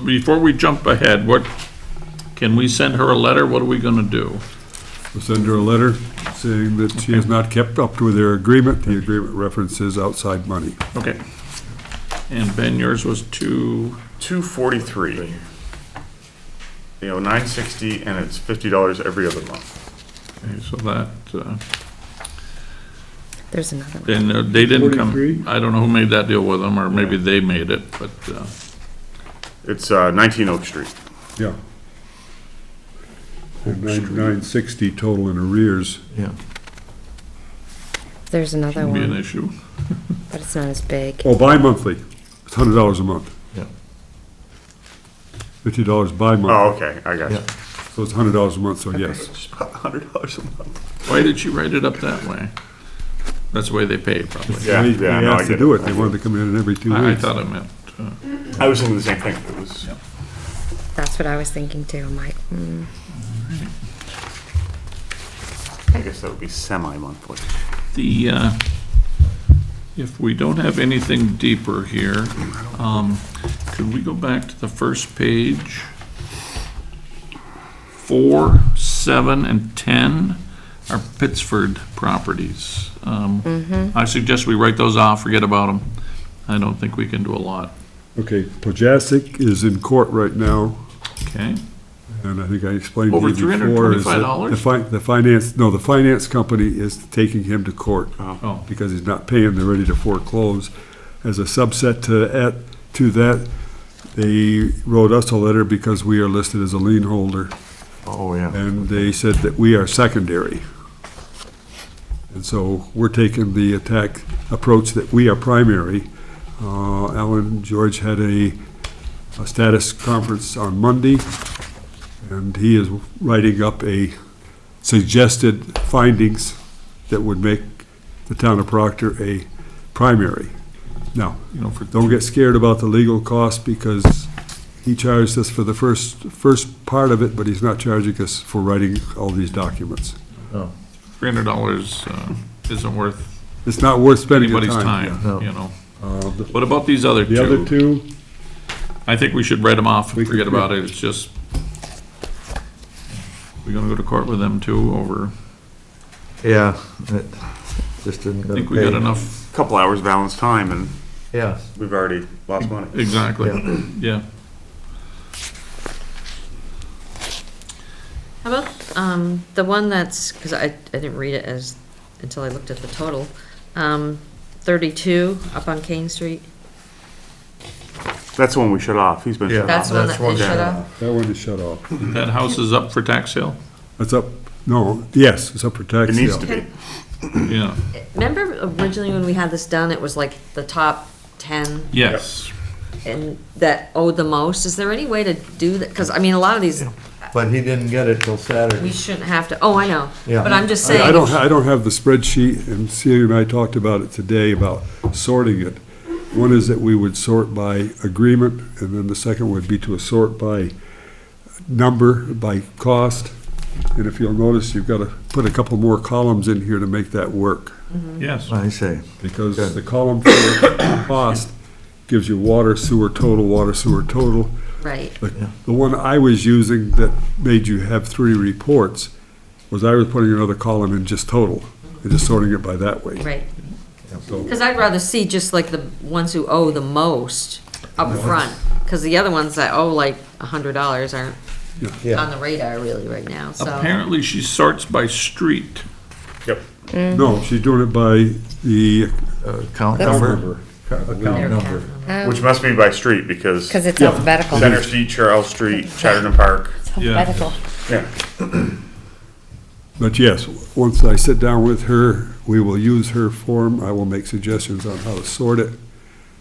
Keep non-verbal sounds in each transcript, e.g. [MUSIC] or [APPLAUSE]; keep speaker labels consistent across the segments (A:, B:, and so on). A: before we jump ahead, what, can we send her a letter? What are we gonna do?
B: We'll send her a letter saying that she has not kept up to their agreement. The agreement references outside money.
A: Okay. And Ben, yours was two,
C: 243. They owe 960 and it's $50 every other month.
A: okay, so that, uh,
D: There's another one.
A: then uh, they didn't come.
B: 43?
A: I don't know who made that deal with them, or maybe they made it, but, uh,
C: It's uh, 19 Oak Street.
B: Yeah. Nine sixty total in arrears.
E: Yeah.
D: There's another
A: shouldn't be an
D: one,
A: issue.
D: but it's not as big.
B: Oh, bi-monthly. It's hundred dollars a month.
E: Yeah.
B: Fifty dollars
F: Mm.
B: bi-month.
C: Oh, okay, I got you.
E: Yeah.
C: Oh.
B: So it's hundred dollars a month, so yes.
C: It's about $100 a month.
A: Why did she write it up that way? That's the way they pay, probably.
C: Yeah,
B: They-
C: yeah,
B: They
C: no, I
B: asked to
C: get
B: do
C: it.
B: it. They wanted to come in every two
A: I I
B: weeks.
A: thought it meant, uh,
C: I was thinking the same thing. It was,
D: That's what I was thinking too. I'm like, mm,
C: I guess that would be semi-monthly.
A: The, uh, if we don't have anything deeper here, um, could we go back to the first page? Four, seven, and 10 are Pittsford properties. Um, I suggest we write those off, forget about them. I don't think we can do a lot,
B: Okay, Pojasic is in court right now.
A: okay?
B: And I think I explained to you
A: Over
B: before. is that
A: $325?
B: The fi- the finance, no, the finance company is taking him to court
A: Oh,
B: because he's not paying, they're ready to foreclose. As a subset to, at, to that, they wrote us a letter because we are listed as a lien holder,
E: Oh, yeah.
B: and they said that we are secondary. And so we're taking the attack approach that we are primary. Uh, Alan George had a, a status conference on Monday, and he is writing up a suggested findings that would make the town of Proctor a primary. Now,
A: you know, for,
B: don't get scared about the legal cost because he charged us for the first, first part of it, but he's not charging us for writing all these documents.
A: $300 uh, isn't worth
B: It's not worth spending the
A: anybody's
B: time.
A: time,
E: No.
A: you know?
B: Uh, the-
A: What about these other two?
B: The other two,
A: I think we should write them off,
B: We
A: and
B: could
A: forget
B: do-
A: about it, it's just, we're gonna go to court with them too over,
E: Yeah. it Just didn't.
A: I think we got enough,
C: Couple hours balance time and
E: Yeah.
C: we've already lost money.
A: exactly, yeah.
F: How about, um, the one that's, because I, I didn't read it as, until I looked at the total, um, thirty-two up on King Street?
C: That's the one we shut off. He's been shut
F: That's
C: off.
F: the one that they
C: Uh, down.
F: shut off?
B: that one is shut off.
A: That house is up for tax sale?
B: That's up, no, yes, it's up for
C: It
B: tax
C: needs
B: sale.
C: to be.
A: Yeah,
F: Remember originally when we had this done, it was like the top ten
A: yes.
F: and that owed the most? Is there any way to do that? Because, I mean, a lot of these,
E: But he didn't get it till
F: we
E: Saturday.
F: shouldn't have to, oh, I know.
E: Yeah.
F: But I'm just saying.
B: I I don't, ha- I don't have the spreadsheet, and Celia and I talked about it today, about sorting it. One is that we would sort by agreement, and then the second would be to sort by number, by cost. And if you'll notice, you've got to put a couple more columns in here to make that work,
A: Yes,
E: I see.
B: because the column for [COUGHS] cost gives you water, sewer total, water, sewer total.
F: Right.
B: The the one I was using that made you have three reports was I was putting another column in just total, and just sorting it by that way.
F: Right.
B: So-
F: Because I'd rather see just like the ones who owe the most up front, because the other ones that owe like a hundred dollars aren't
E: Yeah.
F: on the radar really right now, so.
A: apparently she sorts by street.
C: Yep.
B: No, she's doing it by the
E: uh, Count
D: That's-
E: number. Account number.
C: Which must be by street because
D: Because Oh, it's
B: Yeah.
D: alphabetical.
C: Center Street, Charles Street, Chatterton Park.
D: It's
A: Yeah.
D: alphabetical.
C: Yeah.
B: But yes, once I sit down with her, we will use her form. I will make suggestions on how to sort it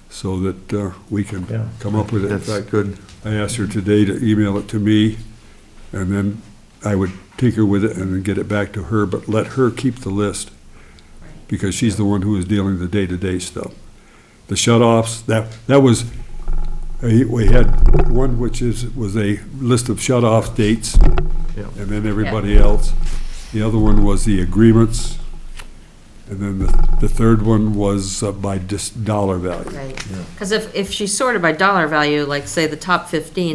B: so that uh, we can
E: Yeah.
B: come up with it. In
E: That's
B: fact,
E: good.
B: I asked her today to email it to me, and then I would tinker with it and then get it back to her, but let her keep the list, because she's the one who is dealing the day-to-day stuff. The shut-offs, that, that was, eh, we had one which is, was a list of shut-off dates,
E: Yeah.
B: and then everybody else. The other one was the agreements, and then the, the third one was uh, by just dollar value.
F: Right. Because if, if she sorted by dollar value, like say the top fifteen,